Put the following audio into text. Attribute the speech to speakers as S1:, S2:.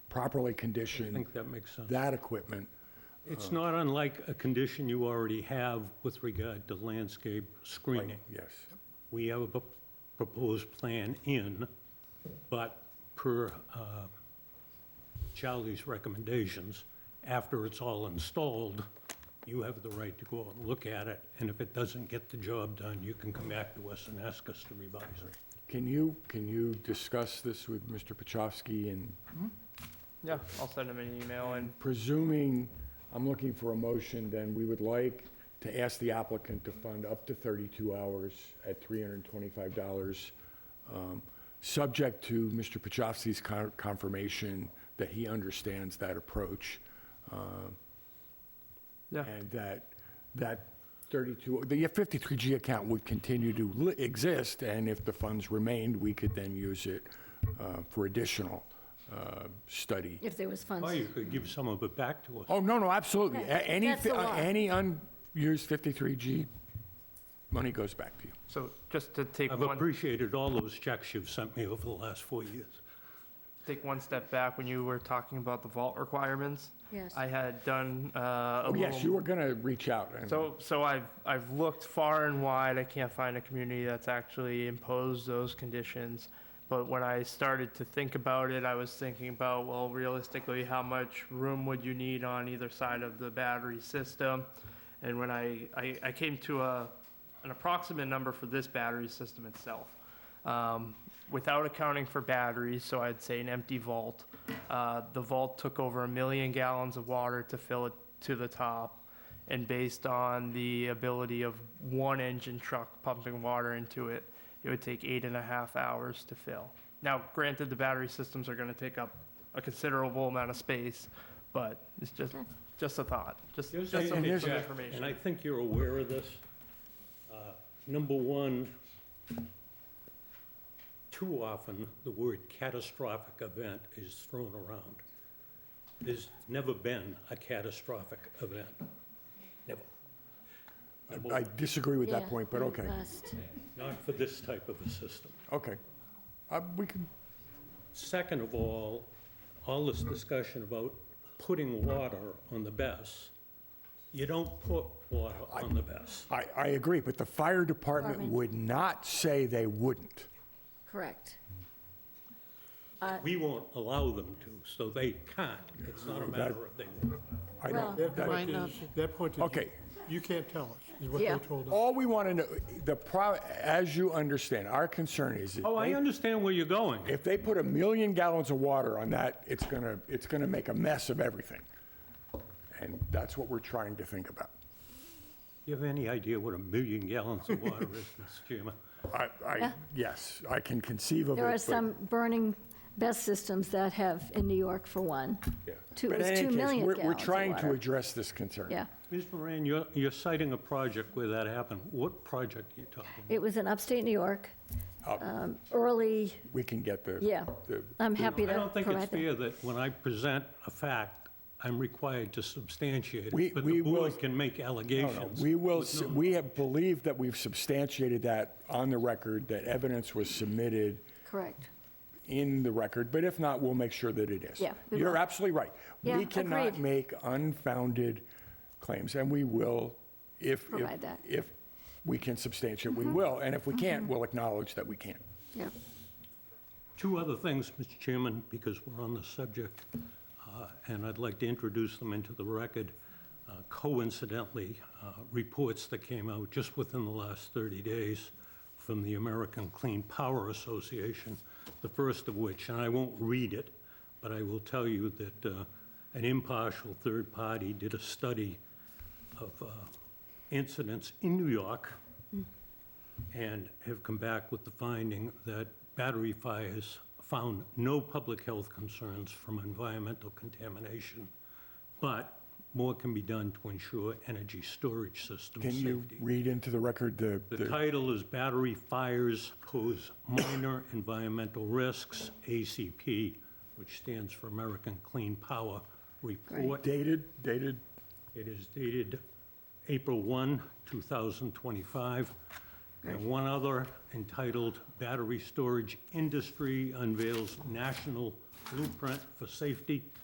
S1: properly
S2: I
S1: condition
S2: think that makes sense.
S1: that equipment.
S2: It's not unlike a condition you already have with regard to landscape screening.
S1: Yes.
S2: We have a p- proposed plan in, but per uh, Charlie's recommendations, after it's all installed, you have the right to go out and look at it, and if it doesn't get the job done, you can come back to us and ask us to revise it.
S1: Can you, can you discuss this with Mr. Pachowski and
S3: Yeah, I'll send him an email and
S1: presuming, I'm looking for a motion, then we would like to ask the applicant to fund up to 32 hours at $325, um, subject to Mr. Pachowski's con- confirmation that he understands that approach. um,
S3: Yeah.
S1: And that, that 32, the 53G account would continue to li- exist, and if the funds remained, we could then use it uh, for additional uh, study.
S4: If there was funds.
S2: Or Oh, you could give some of it back to us.
S1: Oh, no, no, absolutely. A-
S4: Right,
S1: Any,
S4: that's the
S1: fi- uh,
S4: law.
S1: any unused 53G money goes back to you.
S3: so just to take
S2: I've
S3: one,
S2: appreciated all those checks you've sent me over the last four years.
S3: take one step back, when you were talking about the vault requirements,
S4: Yes.
S3: I had done, uh, a
S1: Oh, yes,
S3: little
S1: you were going to reach out. and-
S3: So, so I've, I've looked far and wide, I can't find a community that's actually imposed those conditions. But when I started to think about it, I was thinking about, well, realistically, how much room would you need on either side of the battery system? And when I, I, I came to a, an approximate number for this battery system itself. Um, without accounting for batteries, so I'd say an empty vault. Uh, the vault took over a million gallons of water to fill it to the top and based on the ability of one engine truck pumping water into it, it would take eight and a half hours to fill. Now, granted, the battery systems are gonna take up a considerable amount of space, but it's just, just a thought, just, just some
S2: And
S3: piece of
S2: there's- And I
S3: information.
S2: think you're aware of this. Uh, Number one, too often, the word catastrophic event is thrown around. There's never been a catastrophic event, never. Number
S1: I
S2: one,
S1: disagree with that
S4: Yeah,
S1: point, but
S4: the
S1: okay,
S4: last-
S2: Not for this type of a system.
S1: okay. Uh, We can,
S2: Second of all, all this discussion about putting water on the best, you don't put water on the best.
S1: I, I agree, but the fire department
S4: Department.
S1: would not say they wouldn't.
S4: Correct.
S2: We won't allow them to, so they can't. It's not a matter of they won't.
S1: I don't,
S4: Well-
S5: That
S1: that-
S5: point is, that point is. you-
S1: Okay.
S5: You can't tell us, is what they
S4: Yeah.
S5: told us.
S1: all we want to know, the, pro- as you understand, our concern is that
S2: Oh, I
S1: they-
S2: understand where you're going.
S1: if they put a million gallons of water on that, it's going to, it's going to make a mess of everything. And that's what we're trying to think about.
S2: You have any idea what a million gallons of water is, Mr. Chairman?
S1: I, I, yes, I can conceive of it.
S4: There are
S1: but-
S4: some burning best systems that have, in New York for one. Two, it
S1: But in
S4: was
S1: any
S4: two
S1: case,
S4: million
S1: we're-
S4: gallons of
S1: We're trying to
S4: water.
S1: address this concern.
S4: Yeah.
S2: Ms. Moran, you're, you're citing a project where that happened. What project are you talking about?
S4: It was in upstate New York, um, early,
S1: We can get the.
S4: yeah.
S1: the-
S4: I'm happy
S2: I
S4: to
S2: don't think it's
S4: provide that.
S2: fair that when I present a fact, I'm required to substantiate
S1: We-
S2: it, but
S1: we
S2: the
S1: will-
S2: board can make
S1: No, no,
S2: allegations.
S1: We will, s- we have believed that we've substantiated that on the record, that evidence was submitted
S4: Correct.
S1: in the record, but if not, we'll make sure that it is.
S4: Yeah, we
S1: You're
S4: will.
S1: absolutely right. We
S4: Yeah,
S1: cannot
S4: agreed.
S1: make unfounded claims, and we will, if. if-
S4: Provide that. Mm-hmm.
S1: If we can substantiate, we will, and if we can't, we'll acknowledge that we can't.
S4: Yeah.
S2: Two other things, Mr. Chairman, because we're on the subject, uh, and I'd like to introduce them into the record. Uh, Coincidentally, uh, reports that came out just within the last 30 days from the American Clean Power Association, the first of which, and I won't read it, but I will tell you that uh, an impartial third party did a study of uh, incidents in New York and have come back with the finding that battery fires found no public health concerns from environmental contamination, but more can be done to ensure energy storage system
S1: Can you
S2: safety.
S1: read into the record the?
S2: The title is Battery Fires Pose Minor Environmental Risks, ACP, which stands for American Clean Power Report.
S1: Dated, dated,
S2: It is dated April 1, 2025. And one other entitled Battery Storage Industry Unveils National blueprint for safety